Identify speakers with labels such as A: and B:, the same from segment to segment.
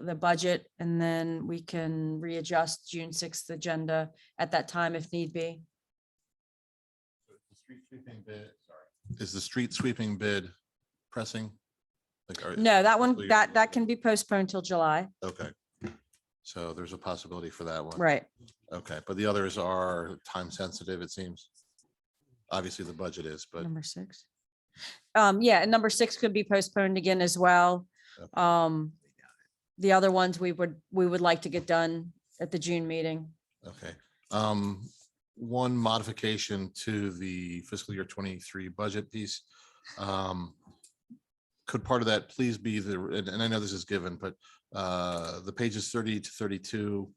A: the budget and then we can readjust June sixth agenda at that time if need be.
B: So is the street sweeping bid, sorry, Is the street sweeping bid pressing? Like, are-
A: No, that one,
B: Hopefully-
A: that, that can be postponed till July.
B: Okay. So there's a possibility for that one.
A: Right.
B: Okay, but the others are time sensitive, it seems. Obviously, the budget is, but
A: Number six. Um, yeah, and number six could be postponed again as well.
B: Okay.
A: Um, the other ones we would, we would like to get done at the June meeting.
B: Okay, um, one modification to the fiscal year twenty-three budget piece. Um, Could part of that please be the, and, and I know this is given, but, uh, the pages thirty to thirty-two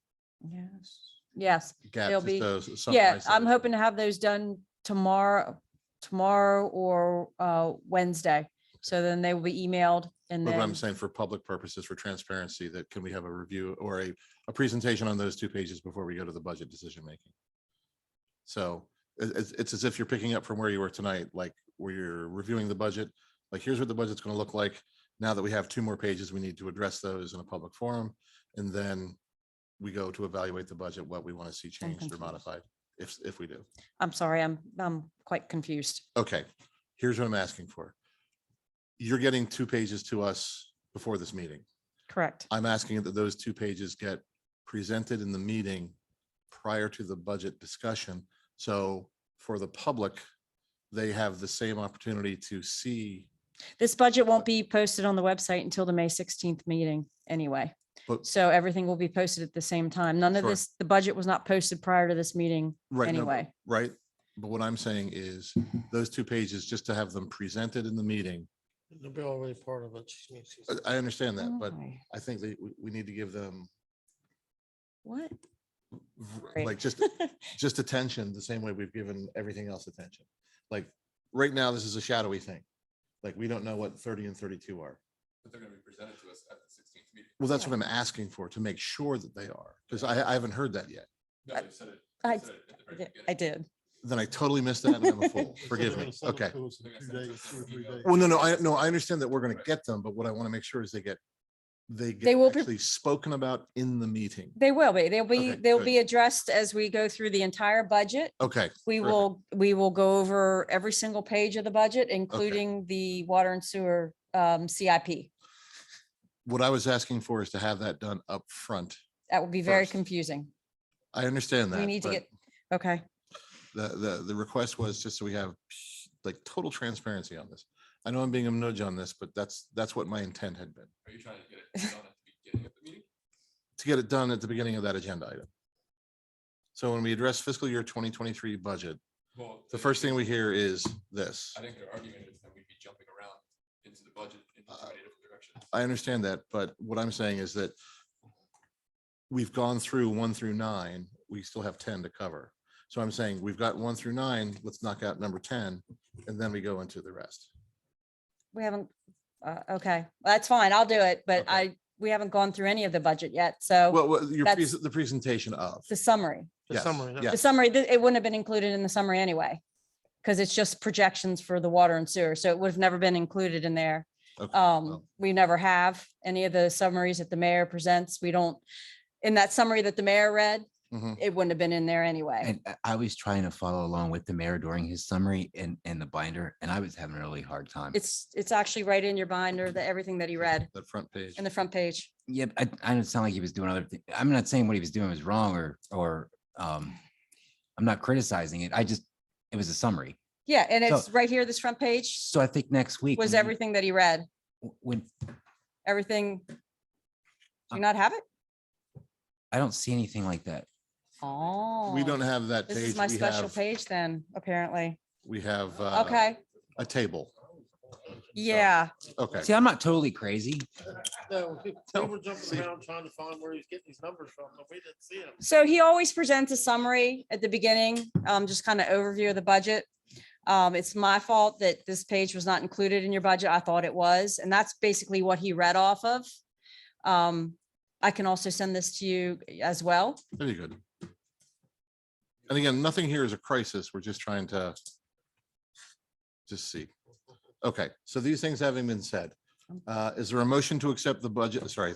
A: Yes. Yes,
B: gap.
A: They'll
B: just
A: be-
B: those-
A: yeah,
B: summarize
A: I'm
B: those.
A: hoping to have those done tomorrow, tomorrow or, uh, Wednesday. So then they will be emailed and
B: But What I'm
A: then,
B: saying for public purposes, for transparency, that can we have a review or a, a presentation on those two pages before we go to the budget decision making? So it- it's, it's as if you're picking up from where you were tonight, like where you're reviewing the budget. Like, here's what the budget's going to look like. Now that we have two more pages, we need to address those in a public forum. And then we go to evaluate the budget, what we want to see changed or
A: confused.
B: modified, if, if we do.
A: I'm sorry, I'm, I'm quite confused.
B: Okay, here's what I'm asking for. You're getting two pages to us before this meeting.
A: Correct.
B: I'm asking that those two pages get presented in the meeting prior to the budget discussion. So for the public, they have the same opportunity to see,
A: This budget won't be posted on the website until the May sixteenth meeting anyway.
B: But-
A: So everything will be posted at the same time. None of
B: Sure.
A: this, the budget was not posted prior to this meeting
B: right? no, but-
A: anyway.
B: Right? But what I'm saying is those two pages, just to have them presented in the meeting.
C: They'll be already part of it. She needs
B: I-
C: to-
B: I understand that, but
A: Why?
B: I think that we, we need to give them
A: What?
B: v-
A: Right.
B: like just just attention the same way we've given everything else attention. Like right now, this is a shadowy thing. Like we don't know what thirty and thirty-two are.
D: But they're gonna be presented to us at the sixteenth meeting.
B: Well, that's what I'm asking for, to make sure that they are, because I, I haven't heard that yet.
D: No,
A: I-
D: they said it.
A: I-
D: they said it at the very
A: I
D: beginning.
A: did.
B: Then I totally missed that and I'm a fool.
C: They said
B: Forgive
C: they're
B: me.
C: gonna send it
B: Okay.
C: to us in
D: They're gonna
C: two
D: send it
C: days,
D: to
C: two or
D: us in
C: three
D: email.
C: days.
B: Well, no, no, I, no, I understand that we're going to
D: Right.
B: get them, but what I want to make sure is they get,
A: They
B: they get
A: will be-
B: actually spoken about in the meeting.
A: They will be, they'll be,
B: Okay,
A: they'll
B: good.
A: be addressed as we go through the entire budget.
B: Okay,
A: We
B: Terrific.
A: will, we will go over every single page of the budget, including the water and sewer um, CIP.
B: what I was asking for is to have that done up front.
A: That would be very
B: First.
A: confusing.
B: I understand that.
A: We need to
B: but
A: get, okay,
B: The, the, the request was just so we have like total transparency on this. I know I'm being a nudge on this, but that's, that's what my intent had been,
D: Are you trying to get it done at the beginning of the meeting?
B: to get it done at the beginning of that agenda item. So when we address fiscal year twenty twenty-three budget,
D: Well.
B: The first thing we hear is this.
D: I think their argument is that we'd be jumping around into the budget in so
B: Uh,
D: many different directions.
B: I understand that, but what I'm saying is that we've gone through one through nine, we still have ten to cover. So I'm saying we've got one through nine, let's knock out number ten, and then we go into the rest.
A: we haven't, uh, okay, that's fine, I'll do it, but
B: Okay.
A: I, we haven't gone through any of the budget yet, so
B: Well, well, your,
A: Oh, that's-
B: pres- the presentation of.
A: the summary,
C: The
B: Yes,
C: summary, yeah.
B: yes.
A: the summary, th- it wouldn't have been included in the summary anyway. Because it's just projections for the water and sewer, so it would have never been included in there.
B: Okay,
A: Um,
B: well.
A: we never have any of the summaries that the mayor presents, we don't, in that summary that the mayor read,
B: Mhm.
A: it wouldn't have been in there anyway.
E: And uh, I- I was trying to follow along with the mayor during his summary and, and the binder, and I was having a really hard time.
A: It's, it's actually right in your binder, the, everything that he read
B: That front page.
A: in the front page.
E: Yeah, but I, I don't sound like he was doing other things. I'm not saying what he was doing was wrong or, or, um, I'm not criticizing it. I just, it was a summary.
A: Yeah, and
E: So-
A: it's right here, this front page
E: So I think next week.
A: was
E: when we-
A: everything that he read.
E: w- When,
A: everything. Do you
E: Um,
A: not have it?
E: I don't see anything like that.
A: Oh.
B: We don't have that
A: This
B: page.
A: is my
B: We
A: special
B: have-
A: page then, apparently.
B: We have. uh,
A: Okay,
B: A table.
A: yeah.
B: Okay,
E: See, I'm not totally crazy.
C: No, we-
B: No,
C: we were
B: see-
C: jumping around trying to find where he's getting these numbers from, but we didn't see them.
A: So he always presents a summary at the beginning, um, just kind of overview of the budget. Um, it's my fault that this page was not included in your budget. I thought it was, and that's basically what he read off of. Um, I can also send this to you as well.
B: very good. And again, nothing here is a crisis. We're just trying to just see. Okay, so these things having been said, uh, is there a motion to accept the budget? Sorry,